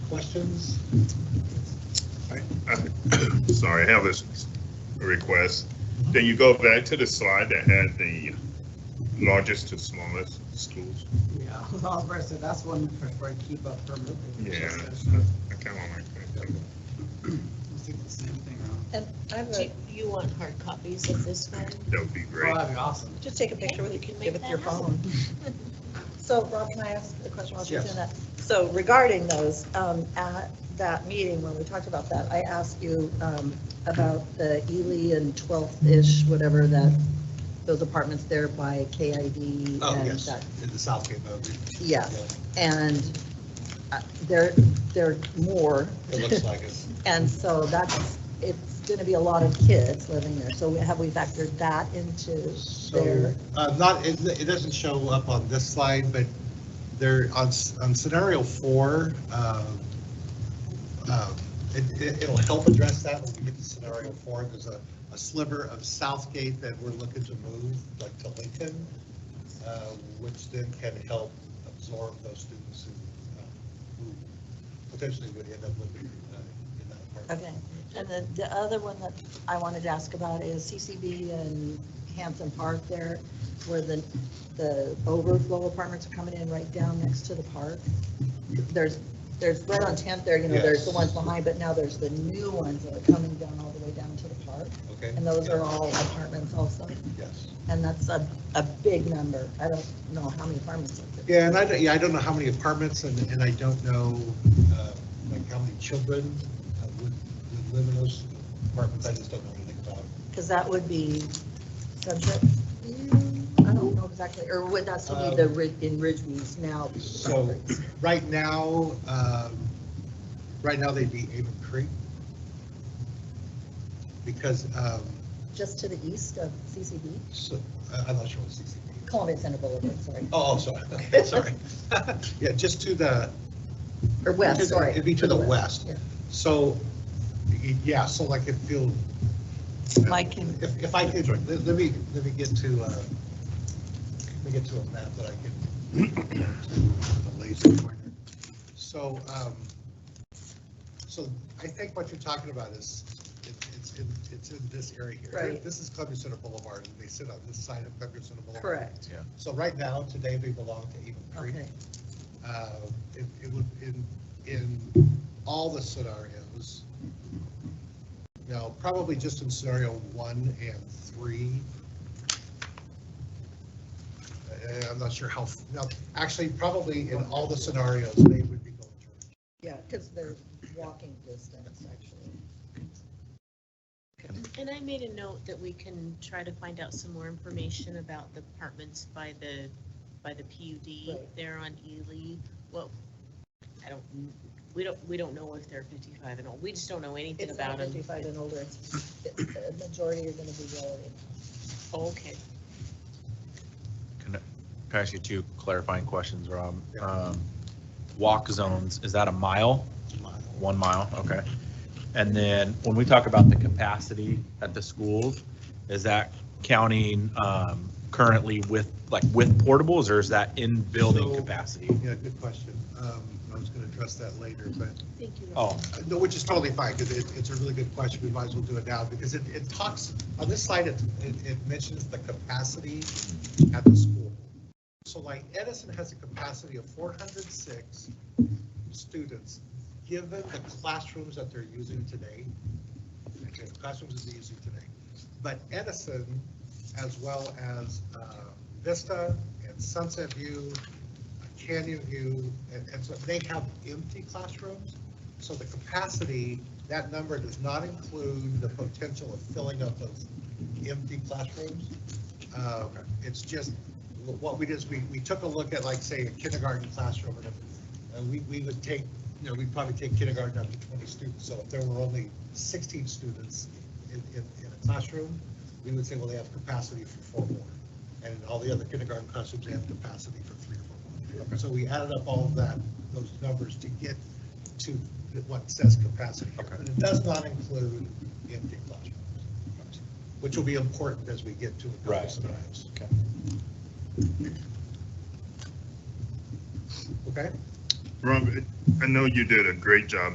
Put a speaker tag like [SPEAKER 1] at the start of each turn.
[SPEAKER 1] questions?
[SPEAKER 2] Sorry, I have this request. Then you go back to the slide that had the largest to smallest schools.
[SPEAKER 1] Yeah, I was gonna say, that's one for I keep up permanently.
[SPEAKER 2] Yeah,
[SPEAKER 1] Let's
[SPEAKER 2] I kind of like that.
[SPEAKER 1] do the same thing. huh?
[SPEAKER 3] And I have
[SPEAKER 4] Do
[SPEAKER 3] a,
[SPEAKER 4] you want hard copies of this one?
[SPEAKER 2] That would be
[SPEAKER 1] Well,
[SPEAKER 2] great.
[SPEAKER 1] Oh, that'd be awesome.
[SPEAKER 3] just take a picture with,
[SPEAKER 4] We can
[SPEAKER 3] give
[SPEAKER 4] make
[SPEAKER 3] it your
[SPEAKER 4] that happen.
[SPEAKER 3] phone. So Rob, can I ask a question while she's
[SPEAKER 1] Yes.
[SPEAKER 3] doing that? So regarding those, um, at that meeting, when we talked about that, I asked you, um, about the Ely and 12th-ish, whatever that, those apartments there by KID.
[SPEAKER 1] Oh,
[SPEAKER 3] and
[SPEAKER 1] yes,
[SPEAKER 3] that-
[SPEAKER 1] in the Southgate building.
[SPEAKER 3] Yeah, and uh, there, there are more.
[SPEAKER 1] It looks like it.
[SPEAKER 3] And so that's, it's going to be a lot of kids living there. So have we factored that into
[SPEAKER 1] So,
[SPEAKER 3] their?
[SPEAKER 1] uh, not, it, it doesn't show up on this slide, but there, on, s- on scenario four, um, um, it, it- it'll help address that when we get to scenario four. There's a, a sliver of Southgate that we're looking to move, like to Lincoln, uh, which then can help absorb those students who, uh, who potentially would end up living uh, in that apartment.
[SPEAKER 3] Okay, and then the other one that I wanted to ask about is CCB and Hanson Park there, where the, the overflow apartments are coming in right down next to the park. There's, there's right on 10th there, you know, there's the ones
[SPEAKER 1] Yes.
[SPEAKER 3] behind, but now there's the new ones that are coming down all the way down to the park.
[SPEAKER 1] Okay?
[SPEAKER 3] And those are all apartments also,
[SPEAKER 1] Yes.
[SPEAKER 3] and that's a, a big number. I don't know how many apartments. are there.
[SPEAKER 1] Yeah, and I, don't- yeah, I don't know how many apartments and, and I don't know, uh, like how many children uh, would, would live in those apartments. I just don't know anything about it.
[SPEAKER 3] Because that would be subject, I don't know exactly, or would that still be the,
[SPEAKER 1] Um,
[SPEAKER 3] Rid- in Ridgeway's now?
[SPEAKER 1] So right now, um, right now they'd be Avon Creek. Because, um,
[SPEAKER 3] Just to the east of CCD,
[SPEAKER 1] so, I- I'm not sure what CCD. is.
[SPEAKER 3] Columbia Center Boulevard, sorry,
[SPEAKER 1] Oh, oh, sorry, sorry. Yeah, just to the,
[SPEAKER 3] or
[SPEAKER 1] To
[SPEAKER 3] west,
[SPEAKER 1] the-
[SPEAKER 3] sorry.
[SPEAKER 1] It'd be to the west.
[SPEAKER 3] Yeah.
[SPEAKER 1] So, y- yeah, so like if you'll.
[SPEAKER 3] Mike can-
[SPEAKER 1] If, if I could, let let me, let me get to, uh, let me get to a map that I can. a laser pointer. So, um, so I think what you're talking about is, it- it's, in it's in this area here.
[SPEAKER 3] Right.
[SPEAKER 1] This is Columbia Center Boulevard, and they sit on this side of Columbia Center Boulevard.
[SPEAKER 3] Correct,
[SPEAKER 1] So right now, today, they belong to Avon Creek
[SPEAKER 3] okay,
[SPEAKER 1] uh, it it would, in, in all the scenarios, no, probably just in scenario one and three. Uh, I'm not sure how, no, actually, probably in all the scenarios, they would be going to.
[SPEAKER 3] yeah, because they're walking distance, actually.
[SPEAKER 4] And I made a note that we can try to find out some more information about the apartments by the, by the PUD
[SPEAKER 3] Right.
[SPEAKER 4] there on Ely. Well, I don't, we don't, we don't know if they're fifty-five and old. We just don't know anything
[SPEAKER 3] It's not
[SPEAKER 4] about them.
[SPEAKER 3] 55 and older, it's, the majority are going to be relative.
[SPEAKER 4] Okay.
[SPEAKER 5] Can I- can I ask you two clarifying questions, Rob?
[SPEAKER 1] Yeah.
[SPEAKER 5] Um, Walk zones, is that a mile?
[SPEAKER 1] mile.
[SPEAKER 5] One mile, okay. And then when we talk about the capacity at the schools, is that counting um, currently with, like with portables or is that in building
[SPEAKER 1] So-
[SPEAKER 5] capacity?
[SPEAKER 1] Yeah, good question. Um, I was going to address that later, but
[SPEAKER 4] Thank you.
[SPEAKER 5] Oh,
[SPEAKER 1] Uh, No, which is totally fine, because it, it's a really good question, we might as well do it now, because it, it talks, on this slide, it, it it mentions the capacity at the school. So like Edison has a capacity of four hundred six students, given the classrooms that they're using today. Okay, the classrooms that they're using today, but Edison, as well as uh, Vista and Sunset View, Canyon View, and, and so they have empty classrooms. So the capacity, that number does not include the potential of filling up those empty classrooms. Uh, It's just, what we did is we, we took a look at like, say, a kindergarten classroom, and if- and we, we would take, you know, we'd probably take kindergarten up to 20 students. So if there were only 16 students in, in, in a classroom, we would say, well, they have capacity for four more. And all the other kindergarten classrooms, they have capacity for three or four more. So we added up all of that, those numbers to get to what says capacity. here,
[SPEAKER 5] Okay.
[SPEAKER 1] But it does not include empty classrooms, which will be important as we get to a couple
[SPEAKER 5] Right.
[SPEAKER 1] scenarios.
[SPEAKER 5] Okay.
[SPEAKER 1] Okay?
[SPEAKER 2] Rob, I know you did a great job